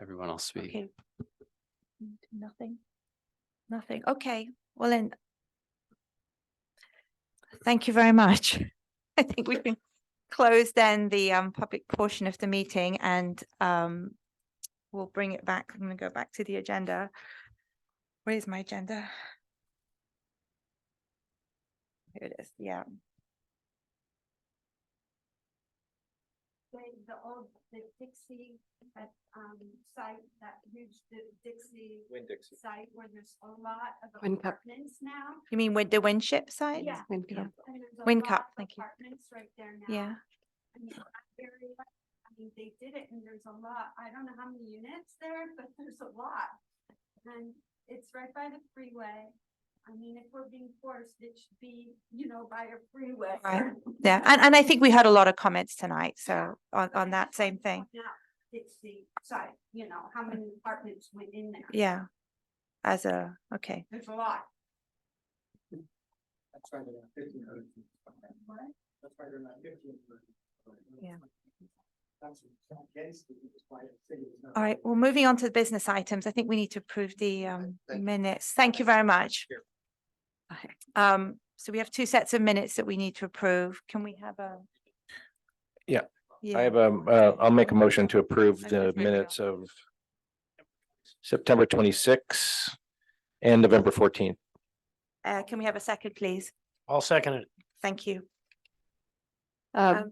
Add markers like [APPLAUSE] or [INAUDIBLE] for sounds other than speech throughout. everyone else speak. Okay. Nothing. Nothing. Okay, well then. Thank you very much. [LAUGHS] I think we can close then the um public portion of the meeting and um. We'll bring it back. I'm gonna go back to the agenda. Where's my agenda? Here it is, yeah. the, the old, the Dixie, that, um, site, that huge Di- Dixie Winn Dixie. site where there's a lot of Win Cup. apartments now. You mean with the windship side? Yeah. Win Cup. and there's a Win lot Cup, of thank you. Apartments right there now. Yeah, I mean, that area, I mean, they did it and there's a lot, I don't know how many units there, [LAUGHS] but there's a lot. And it's right by the freeway. I mean, if we're being forced, it should be, you know, by a freeway. Right. yeah. And and I think we had a lot of comments tonight, so on on that same thing. Now, it's the site, you know, how many apartments went in there? Yeah. As a, okay, There's a lot. That's right, around fifteen hundred. What? That's right, around fifteen hundred. Yeah. That's against the, it's why the city is not. all right, well, moving on to the business items, I think we need to approve the um thank you. minutes. Thank you very much. Here. Okay. Um, so we have two sets of minutes that we need to approve. Can we have a? Yeah, Yeah. I have a, uh, I'll make a motion to approve I'm the just making a- minutes of September twenty-six and November fourteenth. Uh, can we have a second, please? I'll second it. Thank you. Uh, Um,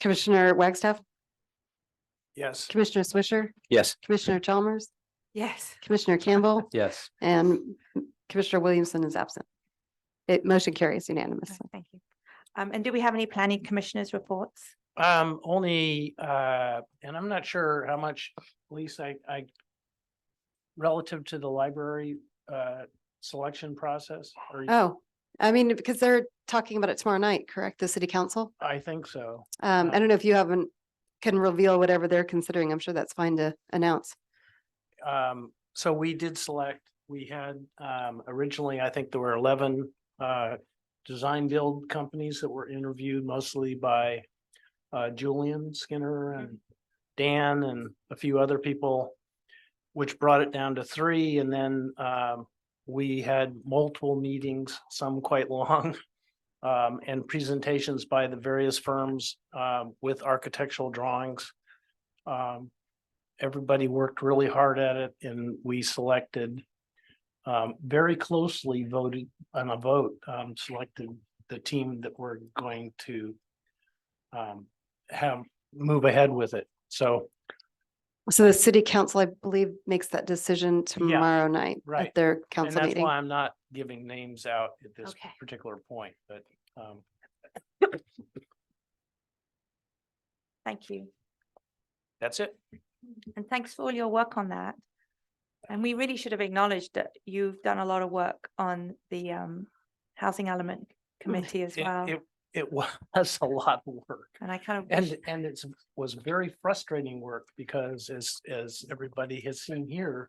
Commissioner Wagstaff, Yes. Commissioner Swisher, Yes. Commissioner Chalmers, Yes, Commissioner Campbell, Yes. and Commissioner Williamson is absent. It motion carries unanimously. right, thank you. Um, and do we have any planning commissioners' reports? Um, only, uh, and I'm not sure how much, at least I, I relative to the library, uh, selection process, or Oh, I mean, because they're talking about it tomorrow night, correct? The city council? I think so. Um, I don't know if you haven't, can reveal whatever they're considering. I'm sure that's fine to announce. Um, so we did select, we had, um, originally, I think there were eleven, uh, design build companies that were interviewed mostly by, uh, Julian Skinner and Dan and a few other people, which brought it down to three. And then, um, we had multiple meetings, some quite long, [LAUGHS] um, and presentations by the various firms, um, with architectural drawings. Um, everybody worked really hard at it and we selected um, very closely voted on a vote, um, selected the team that we're going to um, have, move ahead with it. So, So the city council, I believe, makes that decision tomorrow night at right. their and council that's meeting. why I'm not giving names out at this Okay. particular point, but um, Thank you. that's it. And thanks for all your work on that. And we really should have acknowledged that you've done a lot of work on the um housing element committee as It- well. It, it [LAUGHS] was a lot of work. And I kind of, wish- And, and it's, was very frustrating work because as, as everybody has seen here,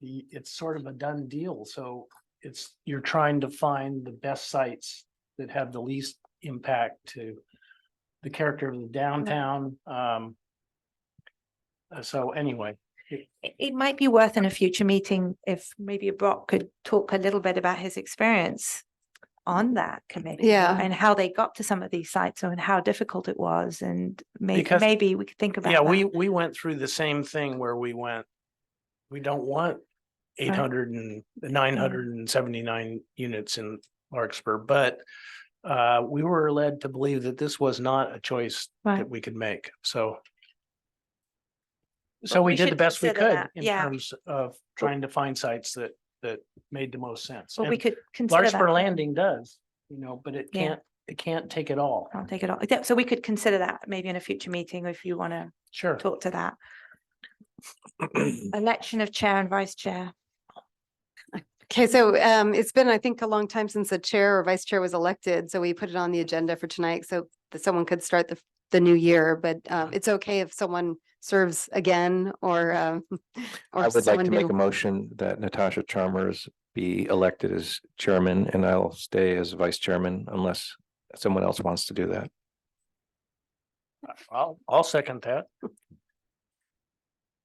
the, it's sort of a done deal. So it's, you're trying to find the best sites that have the least impact to the character of the downtown. Um, uh, so anyway, it it might be worth in a future meeting if maybe Brock could talk a little bit about his experience on that committee. Yeah. And how they got to some of these sites and how difficult it was and maybe, Because- maybe we could think about yeah, that. we, we went through the same thing where we went, we don't want eight hundred and nine hundred and seventy-nine units in Larkspur, but uh, we were led to believe that this was not a choice Right. that we could make, so. Well, So we we did the should best we consider could that, in yeah. terms of trying to find sites that, that made the most sense. But we And could consider Larkspur that. Landing does, you know, but it Yeah. Oh. can't, it can't take it all. I'll take it off. Yeah, So we could consider that maybe in a future meeting if you want to Sure. talk to that. Election of chair and vice chair. Okay, so um, it's been, I think, a long time since the chair or vice chair was elected, so we put it on the agenda for tonight, so that someone could start the, the new year, but um, Mm-hmm. it's okay if someone serves again or um, I [LAUGHS] or would like someone to make a new. motion that Natasha Chalmers be elected as chairman and I'll stay as vice chairman unless someone else wants to do that. I'll, I'll second that.